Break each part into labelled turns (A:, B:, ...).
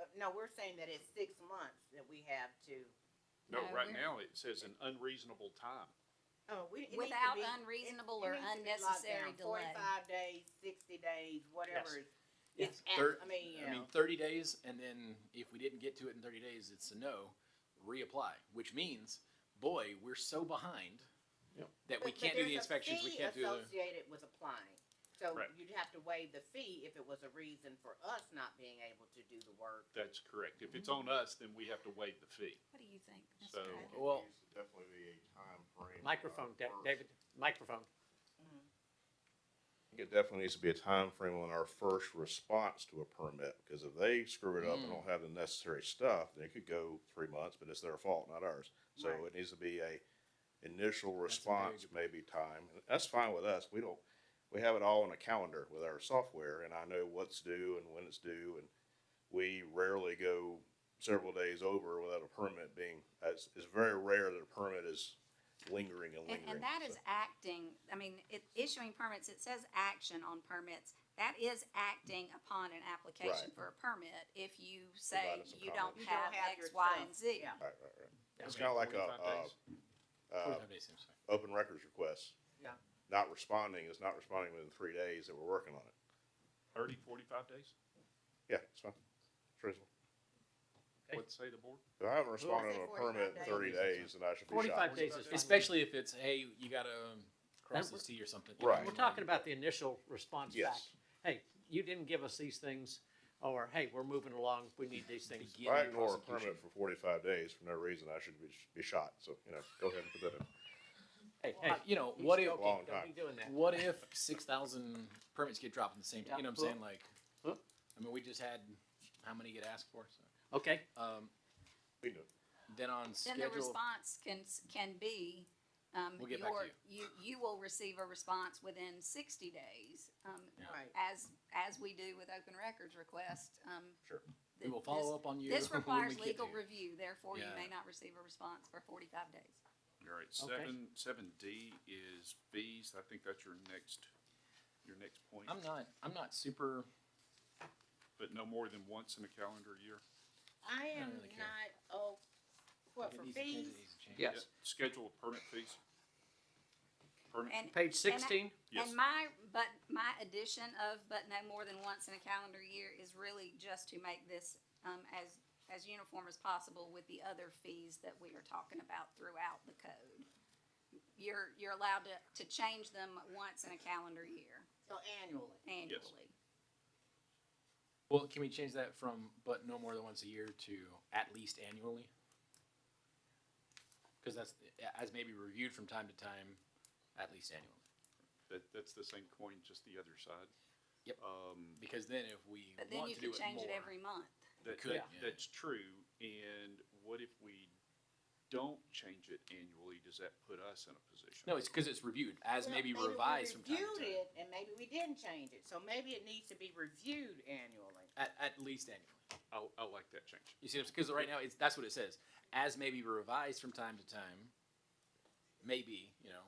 A: Uh, no, we're saying that it's six months that we have to,
B: No,
C: No,
B: right
C: we're-
B: now it says an unreasonable time.
A: oh, we. it needs to
C: Without
A: be-
C: unreasonable
A: it
C: or
A: needs to be locked
C: unnecessary
A: down,
C: delay.
A: Forty-five days, sixty days, whatever. is-
D: Yes.
A: It's, at-
D: Thir-
A: I mean, you
D: I mean,
A: know,
D: thirty days, and then if we didn't get to it in thirty days, it's a no, reapply, which means, boy, we're so behind
B: Yep.
D: that we
A: But- but
D: can't do the
A: there's a
D: inspections, we
A: fee
D: can't do the,
A: Associated with applying, so
B: Right.
A: you'd have to waive the fee if it was a reason for us not being able to do the work.
B: That's correct. If it's on us, then we have to waive the fee.
C: What do you think? Mr.
B: So-
C: Pratt?
D: well,
E: There's Definitely a timeframe.
F: Microphone, Da-
E: on our
F: David, microphone.
E: first- It definitely needs to be a timeframe on our first response to a permit, because if they screw it up and
D: Mm.
E: don't have the necessary stuff, then it could go three months, but it's their fault, not ours. So
A: Right.
E: it needs to be a initial
D: good
E: response, maybe time. And That's fine with us. We don't, we have it all on a calendar with our software, and I know what's due and when it's due, and we rarely go several days over without a permit being, it's, it's very rare that a permit is lingering and
C: And,
E: lingering.
C: and that
E: so.
C: is acting, I mean, it, issuing permits, it says action on permits. That is acting upon an application
E: Right.
C: for a permit if you say
E: Provided some
C: you
E: comment.
C: don't
A: You don't
C: have
A: have
C: X,
A: your
C: Y,
A: stuff,
C: and Z.
A: yeah.
E: Right, right, right. It's
B: Okay,
E: kinda like a,
B: 45
E: uh,
B: days.
E: Uh,
D: forty-five days, I'm sorry.
E: open records requests.
A: Yeah.
E: Not responding is not responding within three days that we're working on it.
B: Thirty, forty-five days?
E: Yeah, it's fine. It's reasonable.
F: Okay.
B: What'd say the board?
E: If I haven't responded
A: say
E: on a
A: 45
E: permit in
A: days.
E: thirty days, then I should be shot.
F: Forty-five days is fine.
D: Especially if it's, hey, you gotta um, cross
F: And
D: this T or something.
E: Right.
F: We're talking about the initial response back.
E: Yes.
F: Hey, you didn't give us these things, or hey, we're moving along, we need these things.
E: If I
D: Beginning
E: ignore a
D: prosecution.
E: permit for forty-five days for no reason, I should be, be shot. So, you know, go ahead and put that in.
F: Hey, hey.
D: Uh, You know, what if,
F: Don't
E: Long
F: be
E: time.
F: doing that.
D: what if six thousand permits get dropped at the same time, you know what I'm
F: Yeah.
D: saying, like,
F: Huh?
D: I mean, we just had, how many get asked for, so.
F: Okay,
D: Um,
E: We know.
D: then on
C: Then the
D: schedule,
C: response can, can be, um,
D: We'll get back to
C: your, you, you will receive a response within sixty days. um,
D: Yeah.
A: Right.
C: As, as we do with open records requests, um.
E: Sure.
D: we will
C: this-
D: follow up on you.
C: This
D: when we
C: requires
D: get
C: legal
D: here.
C: review, therefore you
D: Yeah.
C: may not receive a response for forty-five days.
B: All right,
F: Okay.
B: seven, seven D is fees. I think that's your next, your next point.
D: I'm not, I'm not super,
B: But no more than once in a calendar year.
A: I am
D: really care.
A: not, oh, what, for
D: It needs to change,
A: fees?
D: it needs to change.
F: Yes.
B: Yeah, Schedule of permit fees. Permit,
C: And,
F: page sixteen,
B: yes,
C: and my, but my addition of, but no more than once in a calendar year is really just to make this, um, as, as uniform as possible with the other fees that we are talking about throughout the code. You're, you're allowed to, to change them once in a calendar year
A: So annually.
C: annually.
D: Well, can we change that from, but no more than once a year to at least annually? Cause that's, as may be reviewed from time to time, at least annually.
B: that, that's the same coin, just the other side.
D: Yep.
B: Um,
D: Because then if we
C: But then
D: want
C: you
D: to do
C: can
D: it
C: change it
D: more-
C: every month.
B: That,
D: could,
B: that-
D: yeah.
B: that's true, and what if we don't change it annually, does that put us in a position?
D: No, it's cause it's reviewed, as
A: Well,
D: may be
A: maybe we
D: revised from time to
A: reviewed
D: time,
A: it, And maybe we didn't change it, so maybe it needs to be reviewed annually.
D: at, at least annually.
B: I, I like that change.
D: You see, because right now it's that's what it says. As may be revised from time to time, maybe you know,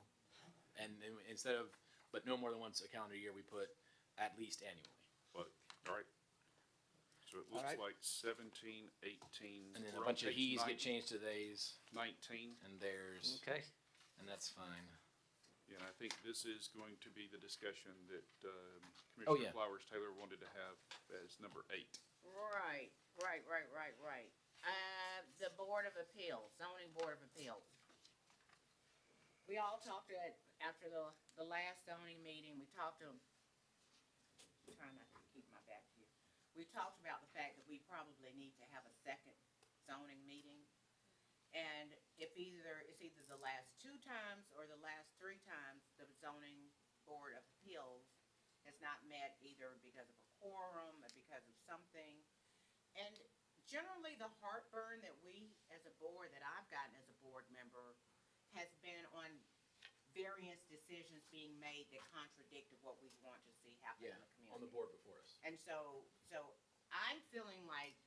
D: and then instead of but no more than once a calendar year, we put at least annually,
B: But, all right. So it looks
F: right.
B: like seventeen, eighteen.
D: and then
B: we're
D: a
B: on
D: bunch of
B: page
D: he's
B: nine-
D: get changed to theys
B: Nineteen,
D: and theirs,
F: okay.
D: and that's fine.
B: and I think this is going to be the discussion that, um,
D: Oh, yeah.
B: Commissioner Flowers Taylor wanted to have as number eight.
A: Right, right, right, right, right. Uh, the Board of Appeals, zoning Board of Appeals. We all talked at, after the, the last zoning meeting, we talked to, trying not to keep my back here. We talked about the fact that we probably need to have a second zoning meeting. And if either, it's either the last two times or the last three times, the zoning Board of Appeals has not met either because of a quorum or because of something. And generally, the heartburn that we, as a board, that I've gotten as a board member, has been on various decisions being made that contradicted what we want to see happen in the community.
D: board before us.
A: And so, so I'm feeling like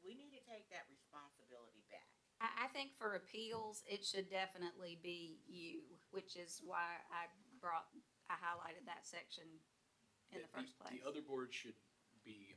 A: we need to take that responsibility back.
C: I, I think for appeals, it should definitely be you, which is why I brought, I highlighted that section in the first place.
D: The other board should be